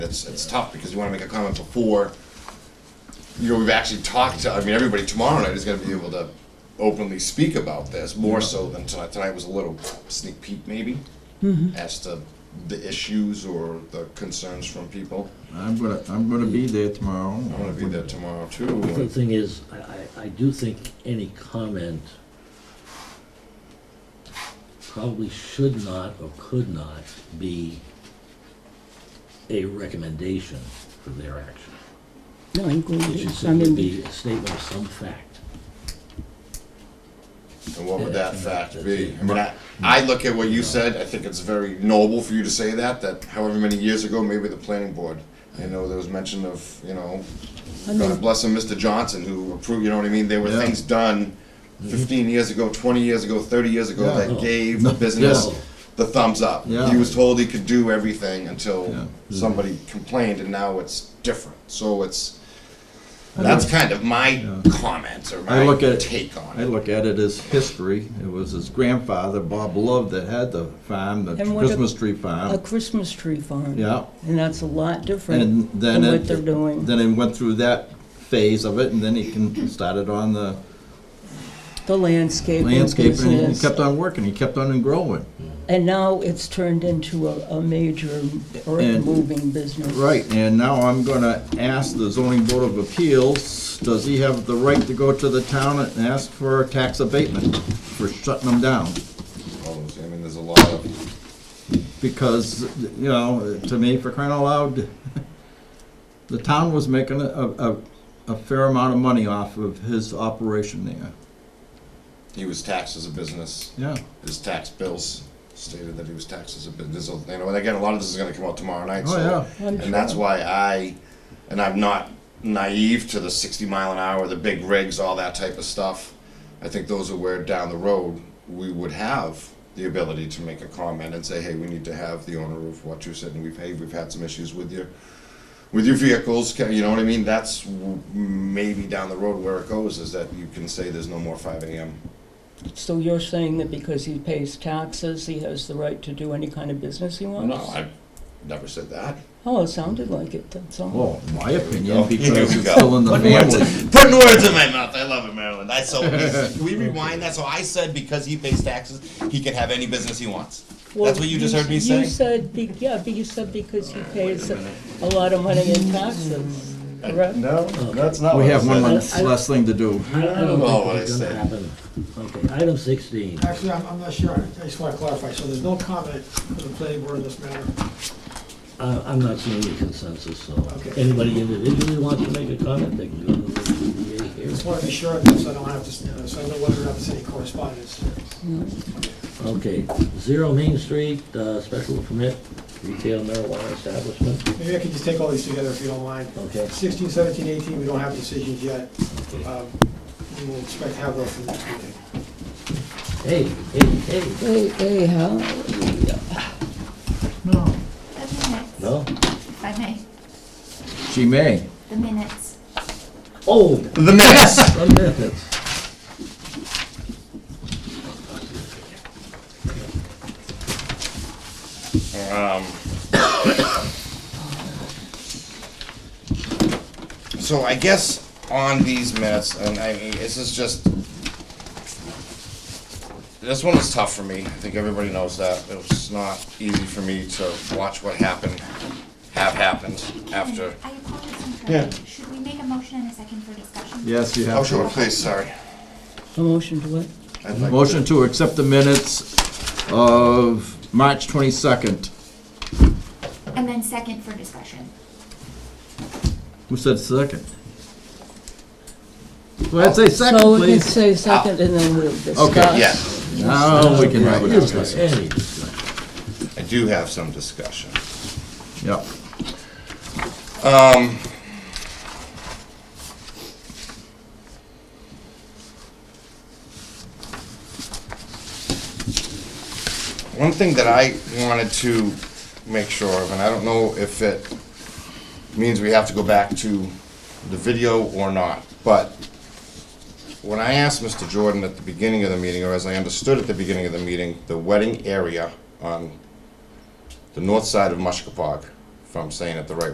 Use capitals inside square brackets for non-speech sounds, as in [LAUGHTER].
It's, it's tough because you want to make a comment before, you know, we've actually talked to, I mean, everybody tomorrow night is going to be able to openly speak about this, more so than tonight. Tonight was a little sneak peek maybe as to the issues or the concerns from people. I'm gonna, I'm gonna be there tomorrow. I'm going to be there tomorrow too. The and- thing is, I, I, I do think any comment probably should not or could not be a recommendation for their action. No, I'm going It should to, I simply mean, be a statement of some fact. And what would that fact be? I mean, I, I look at what you said, I think it's very noble for you to say that, that however many years ago, maybe the planning board, I know there was mention of, you know, I God mean, bless him, Mr. Johnson, who approved, you know what I mean? There were Yeah. Mm-hmm. things done fifteen years ago, twenty years ago, thirty years ago Yeah. that gave the business No. the thumbs up. Yeah. He was told he could do everything Yeah. Mm-hmm. until somebody complained and now it's different. So it's, that's kind of my comment or I my look at, take on I it. look at it as history. It was his grandfather, Bob Love, that had the farm, the And what a- Christmas tree a farm. Christmas tree farm. Um, Yeah, And that's a lot and different then than what it, they're doing. then it went through that phase of it, and then he can, started on the The landscaping landscaping, and he business. kept on working, he kept on growing. And now it's turned into a, a major earth And- moving business. Right, and now I'm gonna ask the zoning board of appeals, does he have the right to go to the town and ask for a tax abatement for shutting them down? All those- I mean, there's a lot of. because, you know, to me, for crying out loud, [LAUGHS] the town was making a, a, a fair amount of money off of his operation there. He was taxed as a business. Yeah, Oh, His tax bills stated that he was taxed as a business. You know, and again, a lot of this is going to come out tomorrow night. Oh, so, yeah. I'm and that's sure. why I, and I'm not naive to the 60 mile an hour, the big rigs, all that type of stuff. I think those are where down the road we would have the ability to make a comment and say, hey, we need to have the owner of what you said, and we've hey, we've had some issues with your with your vehicles. Can, you know what I mean? That's w- maybe down the road where it goes is that you can say there's no more 5 a.m. So you're saying that because he pays taxes, he has the right to do any kind of business he wants? No, I never said that. Oh, it sounded like it, that's all. well, my go. opinion, Oh, Here we because it's go. still in the Putting words in- family. Putting words in my mouth. I love it, Maryland. I so can we rewind that? So I said because he pays taxes, he can have any business he wants. That's what you just heard me You say. said, be- yeah, but you said because he pays a a lot of money in taxes, correct? Uh, No, that's not. We have one I- less, I- less thing to do. I, I don't Oh, think I it's see. gonna happen. Okay, item sixteen. Actually, I'm, I'm not sure, I just want to clarify, so there's no comment from the planning board in this matter? I, I'm not seeing any consensus, so Okay. anybody individually wants to make a comment, they can go to the ZBA here. Just want to be sure of this, so I don't have to, so I know whether or not there's any correspondence. Okay, Zero Main Street, uh, special permit, retail marijuana establishment, Maybe I could just take all these together if you don't mind. okay? 16, 17, 18, we don't have decisions yet. Um, We will expect to have those for the next meeting. Hey, hey, hey, Hey, hey, how? No. The minutes, no? if I may, She may. the minutes. Oh, The minutes. the minutes. Um, so I guess on these minutes, and I mean, this is just. This one was tough for me. I think everybody knows that. It was not easy for me to watch what happened, have happened after. I apologize for Yeah. interrupting. Should we make a motion and a second for discussion? Yes, you Oh, have. sure, please, sorry. A motion to what? I'd like Motion to accept the minutes of March twenty-second. And then second for discussion. Who said second? Well, I'd say second, So we can please. say second and then we'll discuss. Okay, Yeah, Now Oh, we can have a Is there discussion. any discussion? I do have some discussion. Yeah. Um. One thing that I wanted to make sure of, and I don't know if it means we have to go back to the video or not, but when I asked Mr. Jordan at the beginning of the meeting, or as I understood at the beginning of the meeting, the wedding area on the north side of Mushkapog, if I'm saying it the right